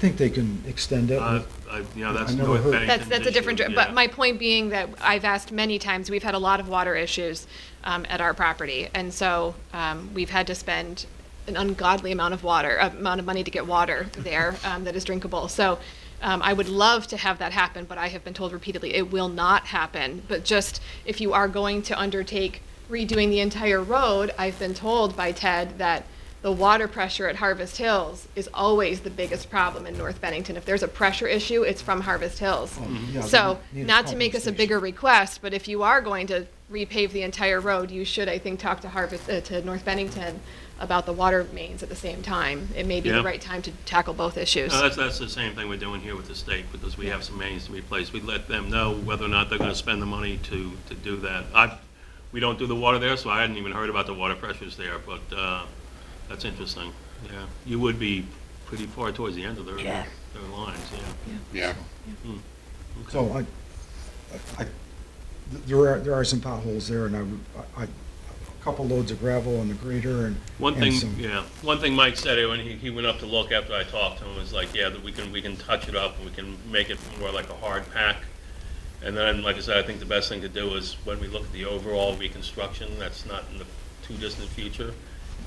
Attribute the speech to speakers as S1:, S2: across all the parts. S1: think they can extend it.
S2: Uh, I- You know, that's
S1: I never
S2: North
S1: heard.
S2: Bennington's
S3: That's, that's a different,
S2: issue,
S3: dr- but
S2: yeah.
S3: my point being that I've asked many times, we've had a lot of water issues um, at our property. And so um, we've had to spend an ungodly amount of water, uh, amount of money to get water there um, that is drinkable. So um, I would love to have that happen, but I have been told repeatedly, it will not happen. But just if you are going to undertake redoing the entire road, I've been told by Ted that the water pressure at Harvest Hills is always the biggest problem in North Bennington. If there's a pressure issue, it's from Harvest Hills.
S1: yeah,
S3: So,
S1: they need a
S3: not to make us a
S1: compensation.
S3: bigger request, but if you are going to repave the entire road, you should, I think, talk to Harvest, uh, to North Bennington about the water mains at the same time. It may be the
S2: Yeah. Uh,
S3: right time to tackle both issues.
S2: No, that's, that's the same thing we're doing here with the state, because we have some mains to replace. We let them know whether or not they're gonna spend the money to, to do that. I, we don't do the water there, so I hadn't even heard about the water pressures there, but, uh, that's interesting, yeah. You would be pretty far towards the end of their,
S3: Yeah.
S2: their lines, yeah.
S4: Yeah,
S1: So I, I, there are, there are some potholes there and I, would- I, I- a couple loads of gravel and the grader and.
S2: One
S1: and
S2: thing,
S1: some-
S2: yeah, one thing Mike said when he, he went up to look after I talked to him was like, yeah, that we can, we can touch it up, we can make it more like a hard pack. And then, like I said, I think the best thing to do is when we look at the overall reconstruction, that's not in the too distant future.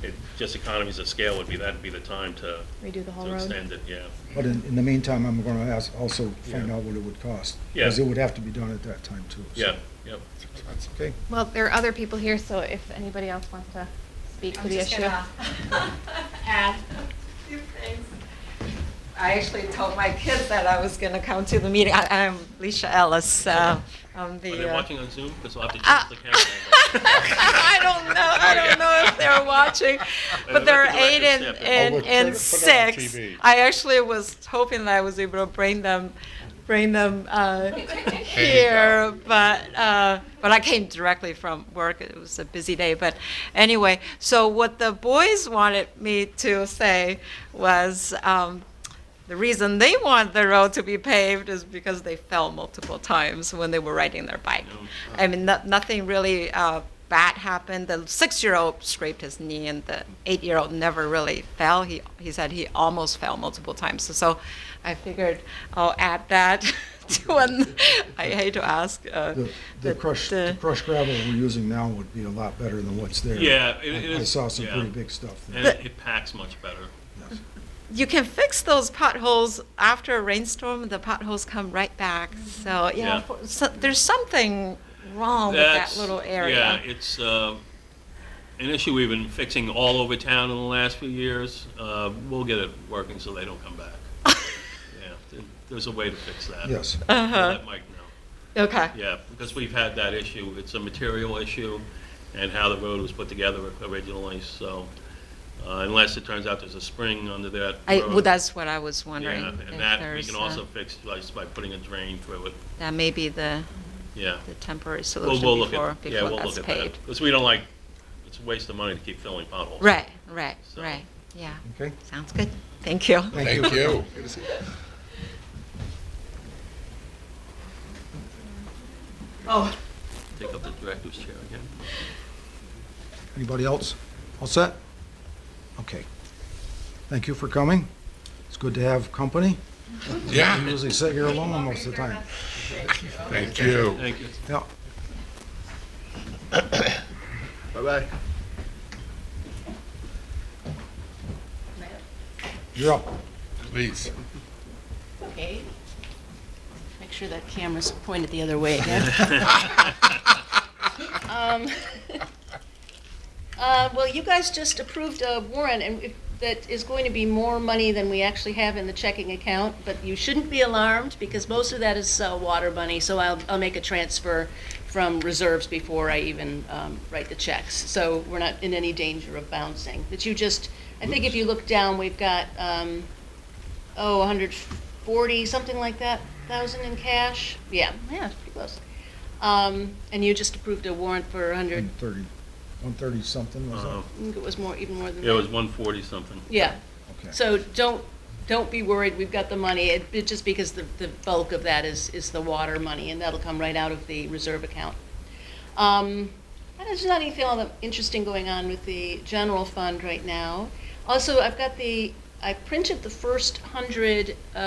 S2: It, just economies of scale would be, that'd be the time to,
S3: Redo the whole
S2: to
S3: road.
S2: extend it, yeah.
S1: But in, in the meantime, I'm gonna ask, also find
S2: Yeah.
S1: out what it would cost.
S2: Yeah.
S1: Because it would have to be done at that time too. so.
S2: Yeah, yep.
S1: That's okay.
S3: Well, there are other people here, so if anybody else wants to speak to
S5: I'm
S3: the
S5: just
S3: issue.
S5: gonna add a few things. I actually told my kids that I was gonna come to the meeting. I- I'm Leisha Ellis, uh, I'm
S2: Are
S5: the.
S2: they
S5: uh,
S2: watching on Zoom? Because I'll have to
S3: Ah.
S2: change the camera angle.
S5: I don't know, I don't know if they're watching, but there are
S2: let the
S5: eight
S2: director
S5: and,
S2: step in.
S4: Oh,
S5: and,
S4: we'll
S5: and
S4: put it- put it on
S5: six.
S4: TV.
S5: I actually was hoping that I was able to bring them, bring them, uh, here, but, uh, but I came directly from work, it was a busy day, but anyway, so what the boys wanted me to say was, um, the reason they want the road to be paved is because they fell multiple times when they were riding their bike. I mean, no, nothing really uh, bad happened. The six-year-old scraped his knee, and the eight-year-old never really fell. He he said he almost fell multiple times. So, so I figured I'll add that to an. I hate to ask. Uh,
S1: The, the crushed, the crushed gravel we're using now would be a lot better than what's there.
S2: Yeah, it- it
S1: I I
S2: is-
S1: saw some
S2: yeah.
S1: pretty big stuff
S2: And
S1: there.
S2: it it packs much better.
S1: Yes.
S5: you can fix those potholes after a rainstorm. The potholes come right back. So you
S2: Yeah.
S5: know, for, so, there's something wrong
S2: That's-
S5: with that little area.
S2: Yeah, it's uh, an issue we've been fixing all over town in the last few years. Uh, We'll get it working so they don't come back. Yeah, th- there's a way to fix that.
S1: Yes.
S2: We'll
S5: Uh-huh.
S2: Let Mike know.
S5: Okay.
S2: Yeah, because we've had that issue. It's a material issue and how the road was put together originally, so uh, unless it turns out there's a spring under that
S5: I,
S2: road.
S5: well, that's what I was wondering.
S2: Yeah,
S5: if
S2: and that we
S5: there's,
S2: can
S5: uh,
S2: also fix just by putting a drain through it,
S5: That may be the,
S2: yeah.
S5: the temporary
S2: We'll,
S5: solution
S2: we'll look at,
S5: before,
S2: yeah, we'll
S5: before
S2: look
S5: that's
S2: at that.
S5: paid.
S2: Because we don't like, it's a waste of money to keep filling potholes.
S5: Right, right,
S2: So-
S5: right, yeah,
S1: Okay,
S5: sounds good, thank you.
S1: thank you.
S4: thank you.
S5: Oh.
S2: Take up the director's chair again.
S1: Anybody else? All set? Okay. Thank you for coming. It's good to have company. You
S4: Yeah,
S1: usually sit here alone most of the time.
S4: thank you.
S2: Thank you.
S1: Yeah.
S6: Bye-bye.
S1: You're up.
S4: Please.
S7: Okay. Make sure that camera's pointed the other way again. Um, uh, Well, you guys just approved a warrant, and if- that is going to be more money than we actually have in the checking account, but you shouldn't be alarmed, because most of that is uh, water money, so I'll, I'll make a transfer from reserves before I even um, write the checks. So we're not in any danger of bouncing. But you just, I think if you look down, we've got, um, oh, 140, something like that, thousand in cash? Yeah, yeah, it's pretty close. Um, And you just approved a warrant for 100,
S1: 130, 130 something, was
S2: Uh,
S1: that?
S7: I think it was more, even more than that.
S2: It was one forty something.
S7: Yeah,
S1: Okay.
S7: so don't, don't be worried, we've got the money, it, it just because the, the bulk of that is, is the water money, and that'll come right out of the reserve account. Um, and There's not anything all that interesting going on with the general fund right now. Also, I've got the I printed the first hundred uh,